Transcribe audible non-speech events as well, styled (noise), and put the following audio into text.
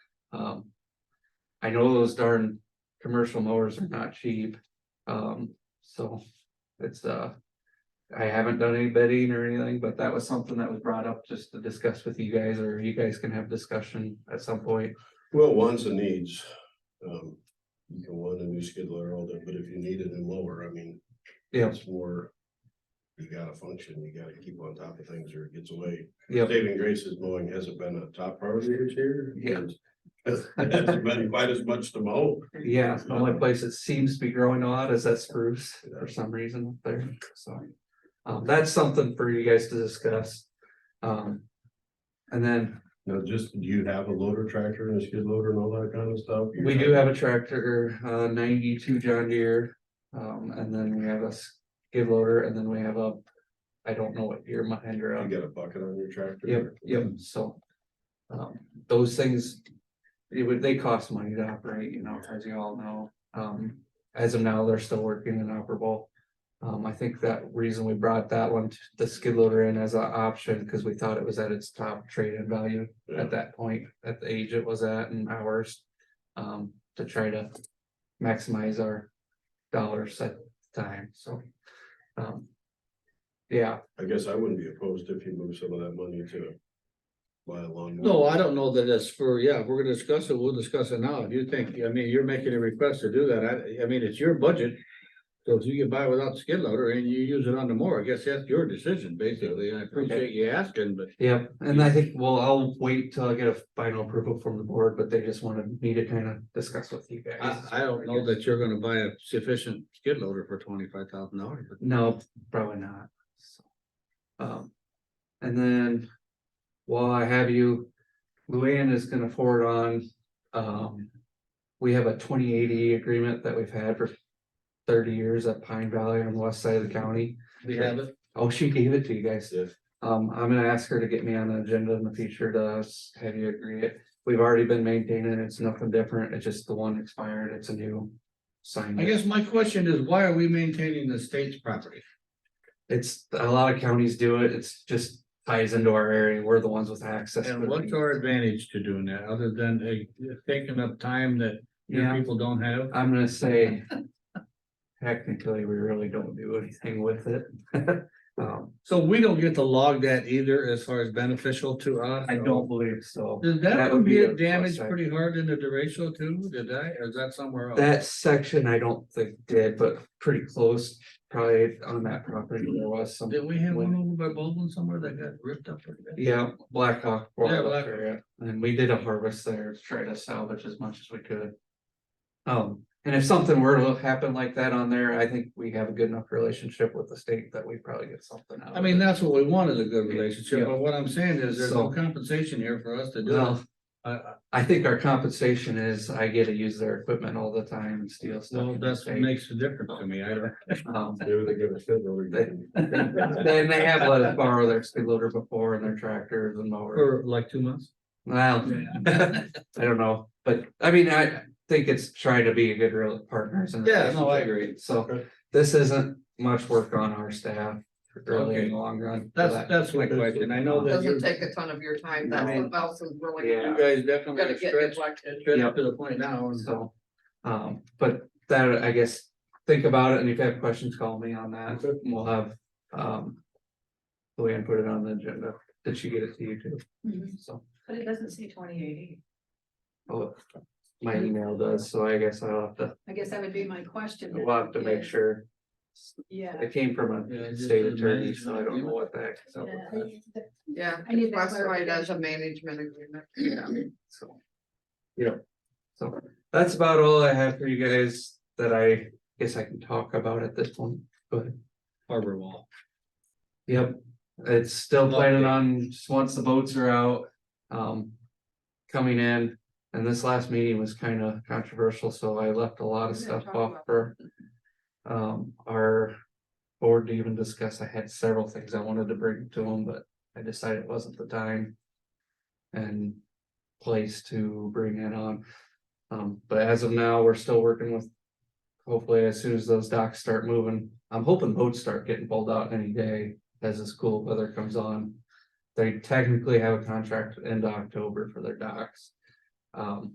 Um. I know those darn commercial mowers are not cheap, um, so it's, uh. I haven't done any bidding or anything, but that was something that was brought up just to discuss with you guys, or you guys can have discussion at some point. Well, wants and needs. Um, you can want a new skid loader all day, but if you need a new mower, I mean. Yeah. It's more. You gotta function, you gotta keep on top of things or it gets away. Yep. Saving grace is mowing hasn't been a top priority this year. Yeah. It's been quite as much to mow. Yeah, the only place it seems to be growing a lot is that spruce for some reason up there, so. Um, that's something for you guys to discuss. Um. And then Now, just, do you have a loader tractor and a skid loader and all that kind of stuff? we do have a tractor, uh, ninety-two John Deere. Um, and then we have a skid loader and then we have a, I don't know what year my Mahindra. You got a bucket on your tractor? Yep, yep, so. Um, those things, it would, they cost money to operate, you know, as you all know, um, as of now, they're still working and operable. Um, I think that reason we brought that one, the skid loader in as an option, because we thought it was at its top trade-in value Yeah. at that point, at the age it was at and hours. Um, to try to maximize our dollars at the time, so. Um. Yeah, I guess I wouldn't be opposed if you move some of that money to. Buy a lawn. No, I don't know that it's for, yeah, if we're gonna discuss it, we'll discuss it now. If you think, I mean, you're making a request to do that. I, I mean, it's your budget. So if you can buy without the skid loader and you use it on the mower, I guess that's your decision, basically. I appreciate you asking, but Yeah, and I think, well, I'll wait till I get a final approval from the board, but they just wanted me to kind of discuss with you guys. I, I don't know that you're gonna buy a sufficient skid loader for twenty-five thousand dollars. No, probably not. So, Um, and then while I have you, Luann is gonna forward on, um, we have a twenty eighty agreement that we've had for thirty years at Pine Valley on the west side of the county. We have it. Oh, she gave it to you guys. Yes. Um, I'm gonna ask her to get me on the agenda in the future to s- have you agree it. We've already been maintaining, it. it's nothing different, it's just the one expired, it's a new. Sign. I guess my question is, why are we maintaining the state's property? It's, a lot of counties do it, it's just ties into our area, we're the ones with access. And what's our advantage to doing that, other than uh, taking up time that your Yeah, people don't have? I'm gonna (laughs) say. Technically, we really don't do anything with it. (laughs) Um, So we don't get to log that either as far as beneficial to us? I don't believe so. Did That that would one be a get plus damaged side. pretty hard into derecho too? Did I, or is that somewhere else? That section I don't think did, but pretty close, probably on that property, there was some. Did we have one over by Baldwin somewhere that got ripped up? pretty bad? Yeah, Black Hawk. Yeah, Wild Black up area, And we did a harvest there, to try to salvage as much as we could. Um, and if something were to happen like that on there, I think we have a good enough relationship with the state that we probably get something out. I of mean, it. that's what we want is a good Yeah. relationship, but what I'm saying is there's no So- compensation here for us to do. it. Well, I- I- I think our compensation is I get to use their equipment all the time and steal stuff. Well, from the that's what state. makes the difference to me. I don't. Um, Maybe they give a skid loader. you can- Then they have let us borrow their skid loader before and their tractors and mowers. For like two months? Well, I don't know, but I mean, I think it's trying to be a good real partners. and- Yeah, no, I agree. So this isn't much work on our staff really in Okay. the long run. for That's, that. that's my question. I know that you, Doesn't take a ton of your time, No. that's what else is really. Yeah. you guys definitely Gonna are get stretched, neglected. stretched to the point now. and- So, um, but that, I guess, think about it and if you have questions, call me on that. Okay. and We'll have, um, Luann put it on the agenda. Did she get it to you too? Mhm. So, But it doesn't say twenty eighty, oh, my email does, so I guess I'll have to, I guess that would be my question. we'll have to make is- sure. Yeah, It came from Yeah, a just state a attorney, management so I don't know what that. yeah, I need that classified as a management agreement, yeah. So. You know, so that's about all I have for you guys that I guess I can talk about at this point, but Harbor wall. yep. It's still planning on, just once the boats are out, um. Coming in, and this last meeting was kind of controversial, so I left a lot of Yeah, stuff talk off about for. Um, our board to even discuss, I had several things I wanted to bring to them, but I decided it wasn't the time. And place to bring that on. Um, but as of now, we're still working with. Hopefully, as soon as those docks start moving, I'm hoping boats start getting pulled out any day as this cool weather comes on. They technically have a contract into October for their docks. Um,